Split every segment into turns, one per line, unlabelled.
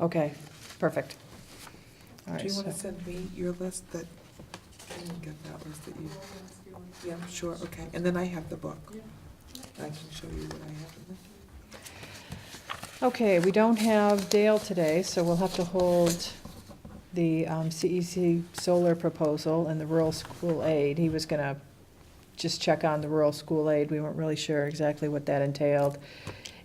Okay, perfect. All
Do
right,
you want to
so-
send me your list that, I didn't get that list that you, yeah, sure, okay, and then I have the book. I can show you what I have in there.
Okay, we don't have Dale today, so we'll have to hold the um, CEC solar proposal and the rural school aid. He was gonna just check on the rural school aid. We weren't really sure exactly what that entailed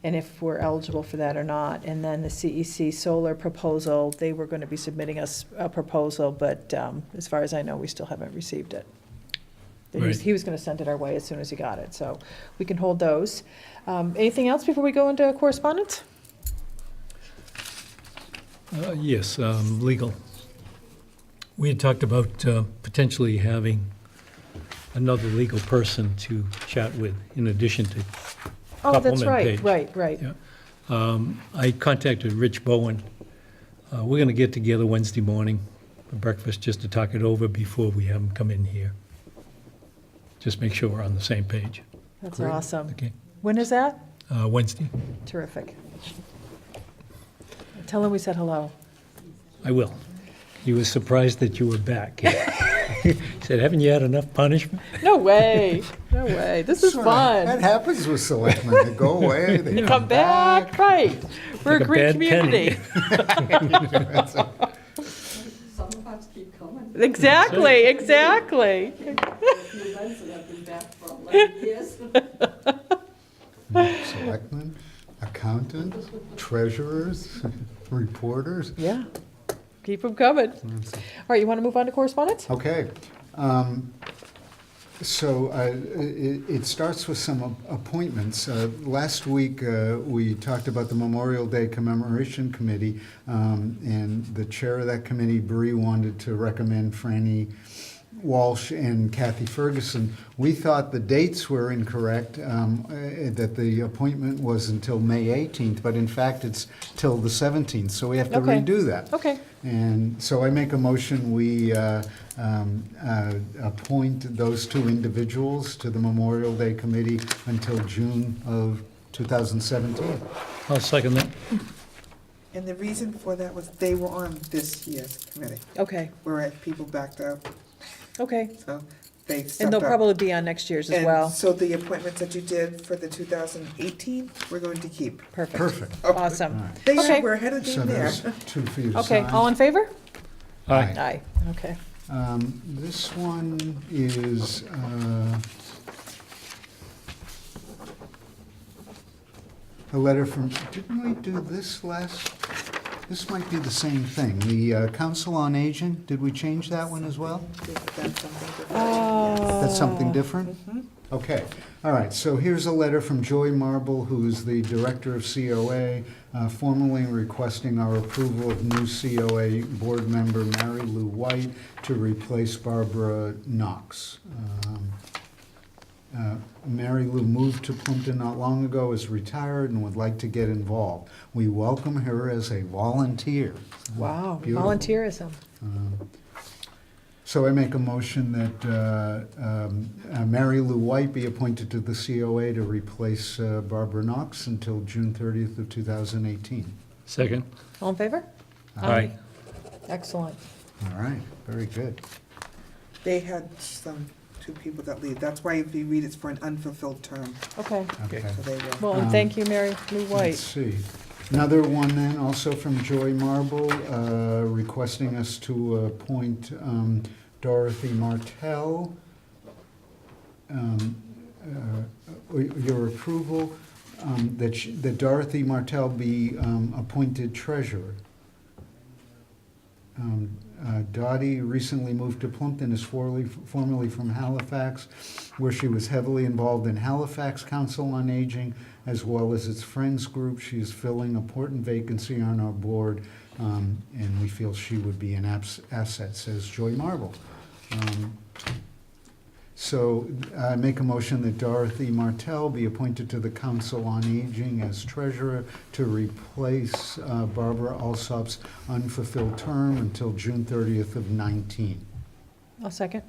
and if we're eligible for that or not. And then the CEC solar proposal, they were gonna be submitting us a proposal, but um, as far as I know, we still haven't received it. He was,
Right.
he was gonna send it our way as soon as he got it, so we can hold those. Um, Anything else before we go into correspondence?
Uh, Yes, um, legal. We had talked about uh, potentially having another legal person to chat with in addition to,
Oh, that's
Supplement
right,
page.
right, right.
Yeah. um, I contacted Rich Bowen. Uh, We're going to get together Wednesday morning for breakfast just to talk it over before we have him come in here. Just make sure we're on the same page.
That's
Great.
awesome.
Okay,
When is that?
Uh, Wednesday?
Terrific. Tell him we said hello.
I will. He was surprised that you were back. He Said, haven't you had enough punishment?
No way, no way. This is
Sure, That
fun.
happens with selectmen. They go away, they
Come back, right. We're a
Like a
great
bad
community.
Some of us keep coming.
Exactly, exactly.
A few months and I've been back for eleven years.
Selectmen, accountants, treasurers, reporters.
Yeah, keep them coming. All right, you want to move on to correspondence?
Okay. um, So uh, it it starts with some ap- appointments. Uh, Last week, uh, we talked about the Memorial Day Commemoration Committee, um, and the chair of that committee, Bree, wanted to recommend Franny Walsh and Kathy Ferguson. We thought the dates were incorrect, um, uh, that the appointment was until May 18th, but in fact, it's till the 17th, so we have to
Okay.
redo that.
Okay,
And so I make a motion, we uh, um, uh, appoint those two individuals to the Memorial Day Committee until June of 2017.
I'll second that.
And the reason for that was they were on this year's committee,
okay,
whereas people backed up,
okay.
so they stepped up.
And they'll probably be on next year's as
And
well.
so the appointments that you did for the 2018, we're going to keep.
Perfect,
Perfect.
awesome.
Alright.
They
Okay.
are, we're ahead of the
So
game
there's
there.
two for you to
Okay,
sign.
all in favor?
Aye.
Aye, okay.
Um, This one is, uh, a letter from, didn't we do this last? This might be the same thing. The uh, Council on Aging, did we change that one as well?
That's something different.
That's something different? Okay, all right, so here's a letter from Joy Marble, who is the Director of COA, uh, formally requesting our approval of new COA Board Member Mary Lou White to replace Barbara Knox. Um, uh, Mary Lou moved to Plimpton not long ago, is retired, and would like to get involved. We welcome her as a volunteer.
Wow,
Beautiful.
volunteerism.
So I make a motion that uh, um, uh, Mary Lou White be appointed to the COA to replace uh, Barbara Knox until June 30th of 2018.
Second.
All in favor?
Aye.
Excellent.
All right, very good.
They had some, two people that leave. That's why if you read, it's for an unfulfilled term,
Okay.
Okay.
so they will.
Well, and
Um,
thank you, Mary Lou
Let's
White.
see. Another one then, also from Joy Marble, uh, requesting us to appoint um, Dorothy Martell. Um, uh, Your approval um, that she- that Dorothy Martell be um, appointed treasurer. Um, uh, Dottie recently moved to Plumpton, is formerly, formerly from Halifax, where she was heavily involved in Halifax Council on Aging, as well as its Friends Group. She is filling an important vacancy on our board, um, and we feel she would be an abs- asset, says Joy Marble. Um, So I make a motion that Dorothy Martell be appointed to the Council on Aging as treasurer to replace uh, Barbara Alsop's unfulfilled term until June 30th of 19.
I'll second.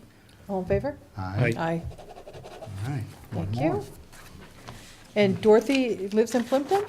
All in favor?
Aye.
Aye.
All right. One
Thank
more.
you. And Dorothy lives in Plimpton?